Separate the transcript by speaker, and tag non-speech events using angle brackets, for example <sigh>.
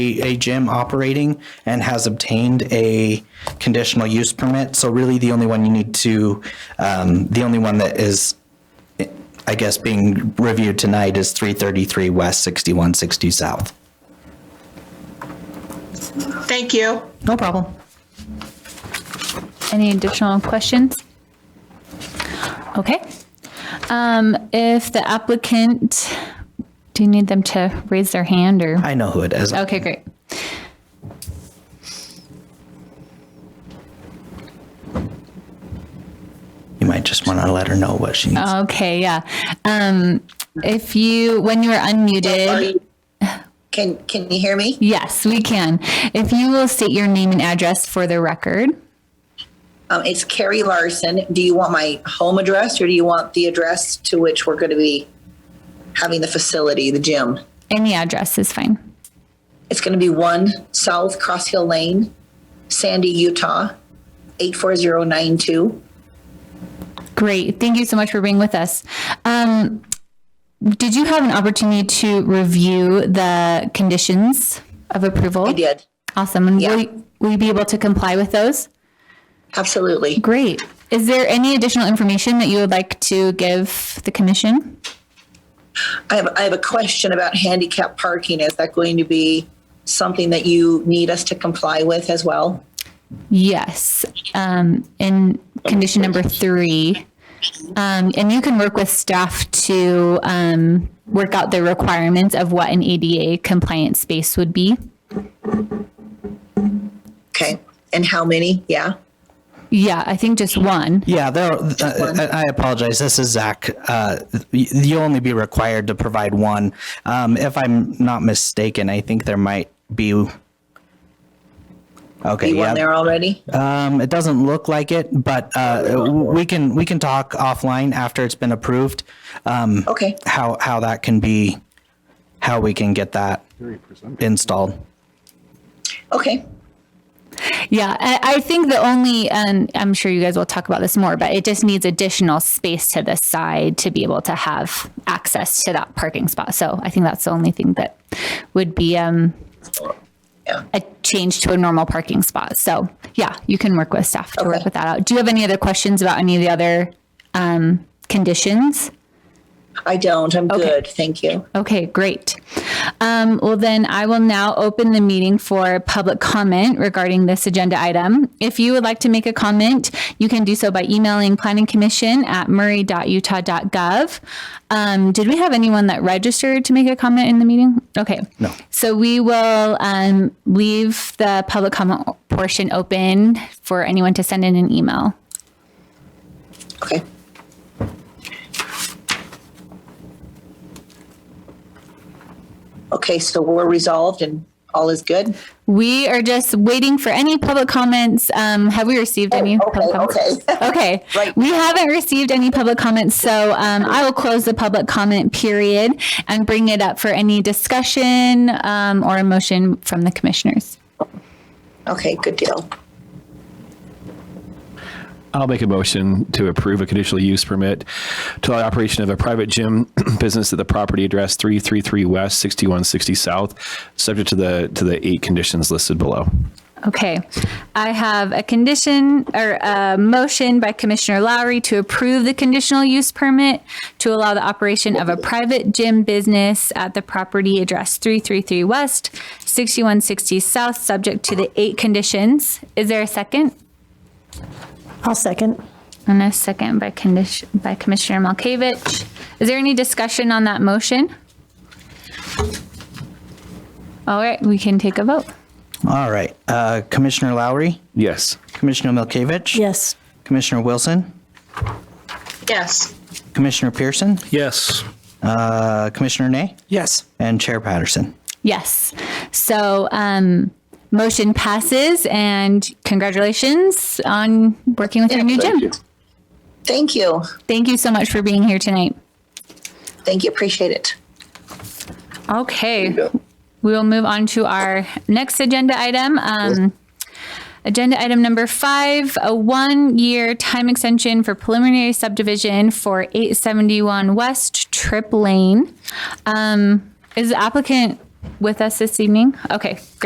Speaker 1: a gym operating and has obtained a conditional use permit. So really, the only one you need to, um, the only one that is, I guess, being reviewed tonight is 333 West, 6160 South.
Speaker 2: Thank you.
Speaker 1: No problem.
Speaker 3: Any additional questions? Okay. Um, If the applicant, do you need them to raise their hand or?
Speaker 1: I know who it is.
Speaker 3: Okay, great.
Speaker 1: You might just want to let her know what she needs.
Speaker 3: Okay, yeah. Um, If you, when you are
Speaker 4: Are
Speaker 3: unmuted,
Speaker 4: you- Can, can you hear me?
Speaker 3: yes, we can. If you will state your name and address for the record.
Speaker 4: Um, it's Carrie Larson. Do you want my home address or do you want the address to which we're going to be having the facility, the gym?
Speaker 3: Any address is fine.
Speaker 4: It's going to be one South Cross Hill Lane, Sandy, Utah, 84092.
Speaker 3: Great. Thank you so much for being with us. Um, Did you have an opportunity to review the conditions of approval?
Speaker 4: I did.
Speaker 3: Awesome. And will,
Speaker 4: Yeah.
Speaker 3: you- will you be able to comply with those?
Speaker 4: Absolutely.
Speaker 3: Great. Is there any additional information that you would like to give the commission?
Speaker 4: I have, I have a question about handicap parking. Is that going to be something that you need us to comply with as well?
Speaker 3: Yes. Um, in condition number three, um, and you can work with staff to um, work out the requirements of what an ADA compliant space would be.
Speaker 4: Okay. And how many? Yeah.
Speaker 3: Yeah, I think just one.
Speaker 1: Yeah, there, uh, I I apologize. This is Zach. Uh, y- You'll only be required to provide one. Um, If I'm not mistaken, I think there might be. Okay,
Speaker 4: You one
Speaker 1: yeah.
Speaker 4: there already?
Speaker 1: Um, It doesn't look like it, but uh, w- we can, we can talk offline after it's been approved,
Speaker 4: Okay.
Speaker 1: how, how that can be, how we can get that installed.
Speaker 4: Okay.
Speaker 3: Yeah, I, I think the only, and I'm sure you guys will talk about this more, but it just needs additional space to the side to be able to have access to that parking spot. So I think that's the only thing that would be um,
Speaker 4: Yeah.
Speaker 3: a change to a normal parking spot. So yeah, you can work with staff to work
Speaker 4: Okay.
Speaker 3: with that out. Do you have any other questions about any of the other um, conditions?
Speaker 4: I don't. I'm good. Thank you.
Speaker 3: Okay, great. Um, well, then I will now open the meeting for public comment regarding this agenda item. If you would like to make a comment, you can do so by emailing planning commission at murray.utah.gov. Um, did we have anyone that registered to make a comment in the meeting? Okay. No. So we will um, leave the public comment portion open for anyone to send in an email.
Speaker 4: Okay. Okay, so we're resolved and all is good?
Speaker 3: We are just waiting for any public comments. Um, have we received any?
Speaker 4: Oh, okay, <laughs>
Speaker 3: public comments? Okay.
Speaker 4: Right.
Speaker 3: We haven't received any public comments, so um, I will close the public comment period and bring it up for any discussion um, or a motion from the commissioners.
Speaker 4: Okay, good deal.
Speaker 5: I'll make a motion to approve a conditional use permit to allow the operation of a private gym <clears throat> business at the property address 333 West, 6160 South, subject to the, to the eight conditions listed below.
Speaker 3: Okay. I have a condition or a motion by Commissioner Lowry to approve the conditional use permit to allow the operation of a private gym business at the property address 333 West, 6160 South, subject to the eight conditions. Is there a second?
Speaker 6: I'll second.
Speaker 3: And a second by condition, by Commissioner Malkovich. Is there any discussion on that motion? All right, we can take a vote.
Speaker 1: All right, uh, Commissioner Lowry,
Speaker 5: Yes.
Speaker 1: Commissioner Milkovich.
Speaker 6: Yes.
Speaker 1: Commissioner Wilson,
Speaker 2: Yes.
Speaker 1: Commissioner Pearson,
Speaker 7: Yes.
Speaker 1: uh, Commissioner Nay. Yes. And Chair Patterson.
Speaker 3: Yes. So um, motion passes and congratulations on working with your new gym.
Speaker 4: Thank you.
Speaker 3: Thank you so much for being here tonight.
Speaker 4: Thank you. Appreciate it.
Speaker 3: Okay. We will move on to our next agenda item. Um, agenda item number five, a one-year time extension for preliminary subdivision for 871 West Trip Lane. Um, is the applicant with us this evening? Okay,